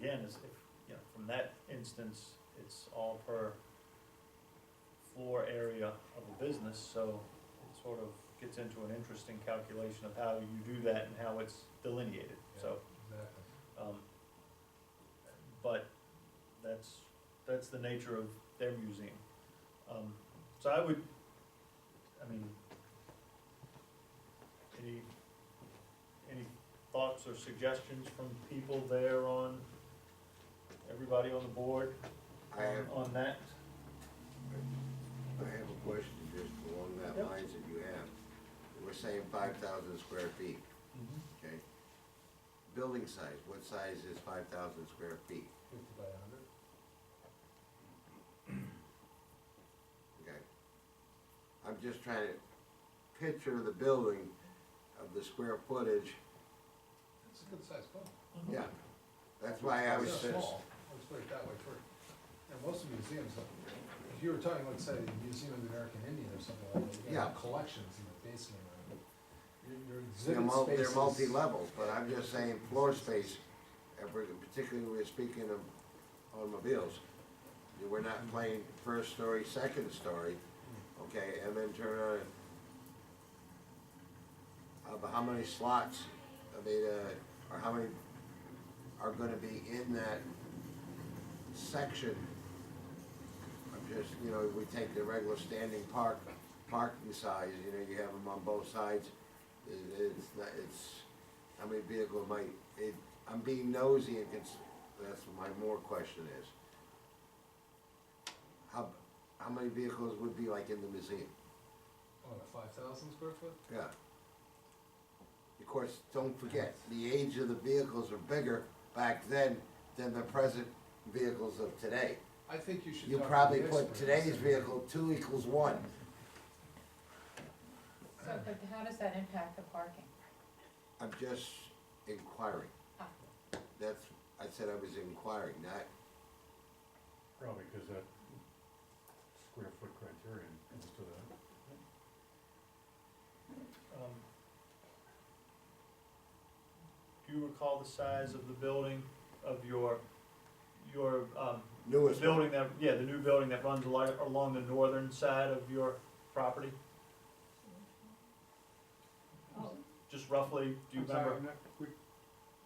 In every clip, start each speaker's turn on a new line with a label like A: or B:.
A: again, is if, you know, from that instance, it's all per floor area of a business, so it sort of gets into an interesting calculation of how you do that and how it's delineated, so.
B: Exactly.
A: Um, But that's, that's the nature of their museum. Um, So I would, I mean, any, any thoughts or suggestions from people there on, everybody on the board
C: I have,
A: on that?
C: I have a question just along that
A: Yep.
C: lines that you have. We're saying five thousand square feet, okay? Building size, what size is five thousand square feet?
B: Fifty by a hundred?
C: Okay. I'm just trying to picture the building of the square footage,
B: It's a good sized building.
C: yeah. That's why I was
B: It's
C: just,
B: small, let's put it that way first. And most of the museums, uh, if you were talking, let's say, the Museum of the American Indian or something like that, you got
C: Yeah.
B: collections in the basement. or your- Your
C: they're
B: exhibit
C: mul- they're
B: spaces.
C: multi-level, but I'm just saying floor space, and we're- particularly we're speaking of automobiles. We're not playing first story, second story,
B: Hmm.
C: Okay, and then turn on, uh, but how many slots are they, uh, or how many are gonna be in that section? I'm just, you know, we take the regular standing park, parking size, you know, you have them on both sides. It, it's not, it's, how many vehicle might, it, I'm being nosy and cons, that's what my more question is. How, how many vehicles would be like in the museum?
B: What, a five thousand square foot?
C: Yeah. Of course, don't forget, the age of the vehicles are bigger back then than the present vehicles of today.
B: I think you should.
C: You
B: talk to
C: probably
B: the
C: put
B: experts.
C: today's vehicle, two equals one.
D: So, but how does that impact the parking?
C: I'm just inquiring.
D: Ah.
C: That's, I said I was inquiring, not,
E: Probably because that square foot criterion comes to that.
A: Um, Do you recall the size of the building of your, your, um, The
C: newest one.
A: building that, yeah, the new building that runs along, along the northern side of your property, just roughly, do you
F: I'm sorry,
A: remember?
F: I'm not- we-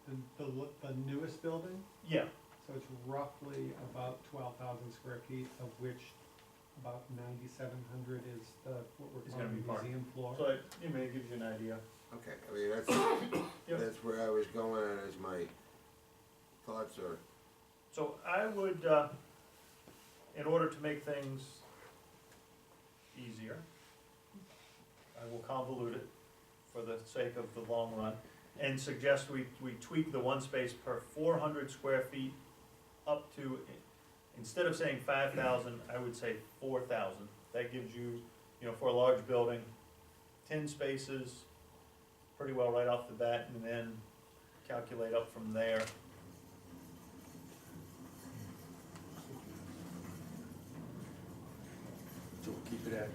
F: The, the, l- the newest building,
A: Yeah,
F: so it's roughly about twelve thousand square feet, of which about ninety-seven hundred is the, what we're
A: Is gonna
F: calling
A: be
F: the
A: park.
F: museum floor.
A: so it, you know, it gives you an idea.
C: Okay, I mean, that's, that's where I was going at is my thoughts are,
A: So I would, uh, in order to make things easier, I will convolute it for the sake of the long run, and suggest we, we tweak the one space per four hundred square feet up to, instead of saying five thousand, I would say four thousand. That gives you, you know, for a large building, ten spaces, pretty well right off the bat, and then calculate up from there.
E: So keep it at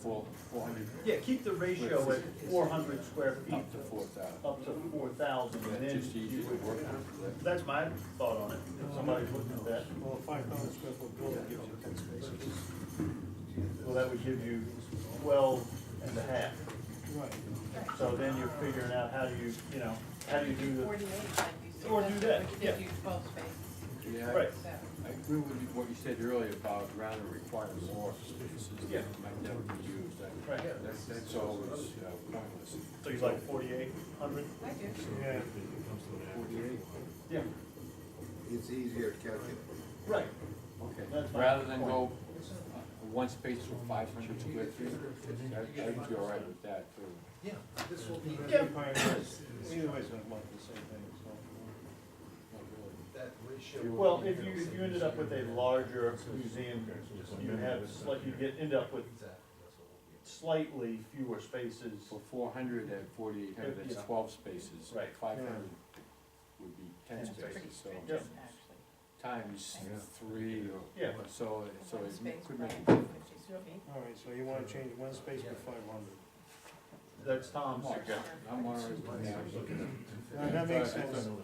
E: four, four hundred
A: Yeah, keep the ratio at four hundred square feet,
E: up to four thousand.
A: up to four thousand, and
E: That's just
A: then,
E: easier to work with.
A: that's my thought on it, if somebody's looking at that.
E: Well, five thousand square foot building gives you ten spaces.
A: Well, that would give you twelve and a half,
E: Right.
A: so then you're figuring out how do you, you know, how do you do the,
D: Forty-eight, like you said.
A: Or do that,
D: Which
A: yeah.
D: gives you twelve spaces,
E: Yeah,
A: right,
E: I-
D: so.
E: I agree with you- what you said earlier about around the required floor spaces
A: Yeah.
E: that might never be used. That-
A: right,
E: That's, that's always uh, pointless.
A: so you like forty-eight hundred?
D: I do.
E: Yeah.
A: Yeah.
C: it's easier to calculate.
A: Right,
E: Okay,
A: That's my
E: rather than
A: point.
E: go uh, one space for five hundred square feet, I- I'd be all right with that too.
B: Yeah, this will be.
A: Yeah.
E: Either way, it's gonna look the same thing, it's not. Not really.
B: That ratio.
A: well, if you, if you ended up with a larger museum, you have, slight- you get, end up with
B: Exactly, that's what we'll be.
A: slightly fewer spaces.
E: For four hundred and forty-eight hundred,
A: Yeah.
E: that's twelve spaces.
A: Right.
E: Five hundred would be ten
D: It's pretty
E: spaces, so
D: stringent, actually.
E: times
D: Yeah.
E: three or,
A: Yeah,
E: so, so
D: One
E: it
D: space
E: could
D: per
E: make.
D: inch, which is feet.
G: All right, so you wanna change one space to five hundred.
A: that's Tom's
E: I'm all right
B: Why
E: with
B: is it
E: that.
B: looking at two fifty?
G: That makes sense.